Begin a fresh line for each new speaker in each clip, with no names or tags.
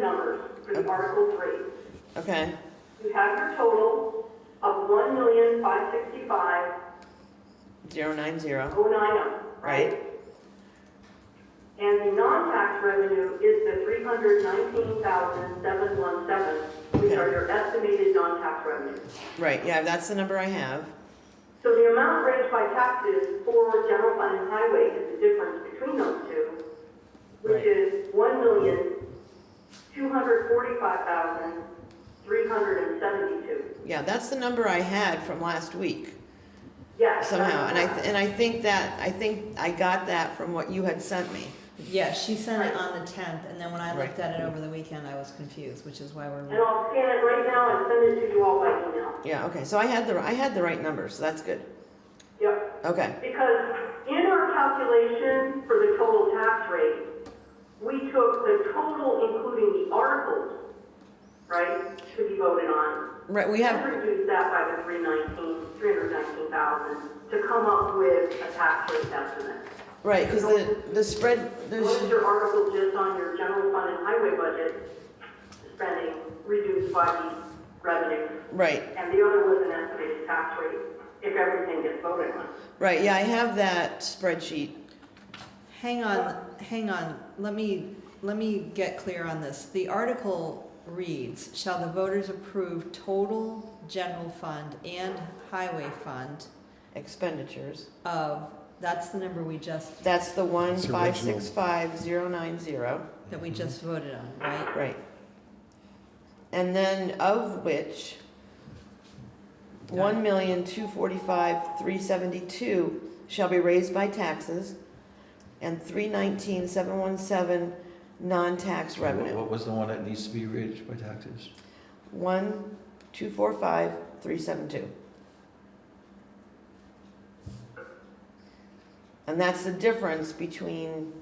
numbers for the Article 3.
Okay,
You have your total of one million five sixty-five
zero nine zero,
oh nine oh.
right?
And the non-tax revenue is the three hundred nineteen thousand seven one seven, which are your estimated non-tax revenues.
Right, yeah, that's the number I have.
So the amount raised by taxes for general fund and highway is the difference between those two, which
Right.
is one million two hundred forty-five thousand three hundred and seventy-two.
Yeah, that's the number I had from last week
Yes.
somehow. And I,
that's-
th- and I think that, I think I got that from what you had sent me.
Yeah, she sent it on the tenth, and then when I looked
Right.
at it over the weekend, I was confused, which is why
And
we're,
I'll scan it right now and send it to you all by email.
Yeah, okay, so I had the, I had the right numbers, so that's good.
Yep.
Okay,
Because in our calculation for the total tax rate, we took the total including the articles, right, to be voted on,
right, we
and
have,
reduced that by the 319, 319,000 to come up with a tax rate estimate.
right, because the, the spread,
What is
there's,
your article just on your general fund and highway budget spending reduced by the revenue?
right,
And the other was an estimated tax rate if everything gets voted on.
right, yeah, I have that spreadsheet.
hang on, hang on, let me, let me get clear on this. The article reads, shall the voters approve total general fund and highway fund
Expenditures.
of, that's the number we just,
That's the one
It's
five
original.
six five zero nine zero,
that we just
Mm-hmm.
voted on, right?
right? And then of which, one million two forty-five three seventy-two shall be raised by taxes, and three nineteen seven one seven non-tax revenue.
What was the one that needs to be raised by taxes?
One two four five three seven two. And that's the difference between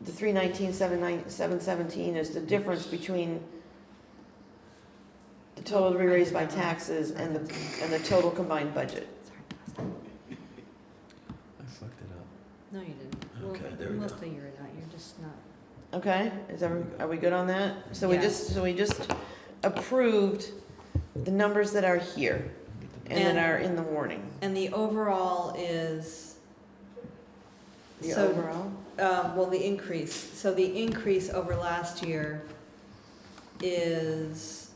the three nineteen, seven nine, seven seventeen is the difference between the total to be raised by taxes and the, and the total combined budget.
I fucked it up.
No, you didn't. We'll-
Okay, there we
We'll
go.
figure it out, you're just not,
Okay, is every, are we good on that? So we
Yeah.
just, so we just approved the numbers that are here and
And-
that are in the warning.
and the overall is,
The
So-
overall?
Um, well, the increase, so the increase over last year is,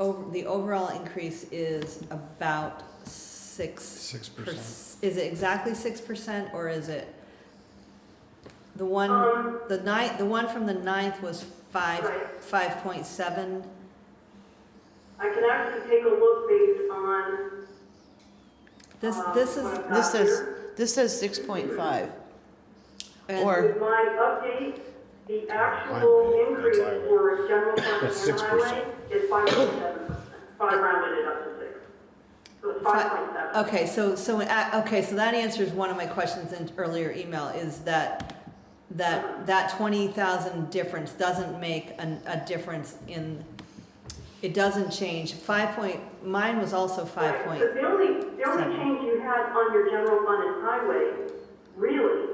over, the overall increase is about six.
Six
per-
percent.
Is it exactly six percent, or is it? The one,
Um,
the ninth, the one from the ninth was five,
Right.
five point seven,
I can actually take a look based on
this,
Um,
this is,
what I've
This
got
is-
here.
This says six point five.
and-
or-
With my update, the
Highway,
actual
that's
increase
highway.
for general fund
That's
and
6%.
highway is five point seven percent. Five rounded it up to six. So it's
Fi-
five point seven.
Okay, so, so, uh, okay, so that answers one of my questions in earlier email, is that, that, that twenty thousand difference doesn't make a, a difference in, it doesn't change, five point, mine was also five point,
But the only, the only
seven.
change you had on your general fund and highway, really,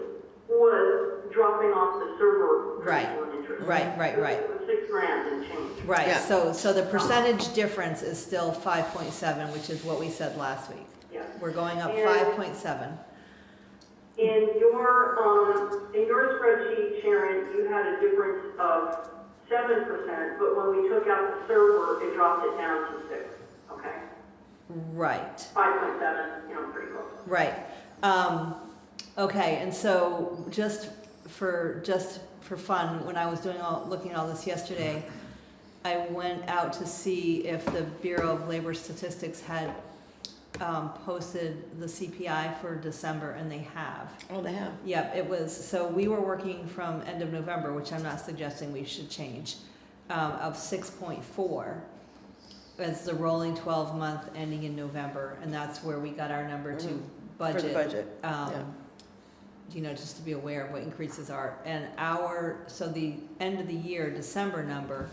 was dropping off the server.
Right.
principal and interest.
right, right, right.
It was Six grand and change.
Right,
Yeah.
so, so the percentage difference is still five point seven, which is what we said last week.
Yeah.
We're going up
And-
five point seven.
In your, um, in your spreadsheet, Sharon, you had a difference of seven percent, but when we took out the server, it dropped it down to six, okay?
Right.
Five point seven, you know, pretty close.
Right. Um, okay, and so just for just for fun, when I was doing all looking at all this yesterday, I went out to see if the Bureau of Labor Statistics had um, posted the CPI for December, and they have.
Oh, they have.
Yep, it was, so we were working from end of November, which I'm not suggesting we should change, um, of six point four. As the rolling twelve month ending in November, and that's where we got our number
Mhm. For
to
the
budget.
budget. yeah.
Um, you know, just to be aware of what increases are, and our, so the end of the year, December number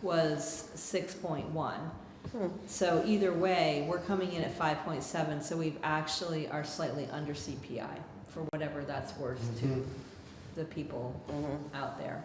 was six point one.
Hmm.
So either way, we're coming in at five point seven, so we've actually are slightly under CPI for whatever that's worth to the people
Mhm.
out there.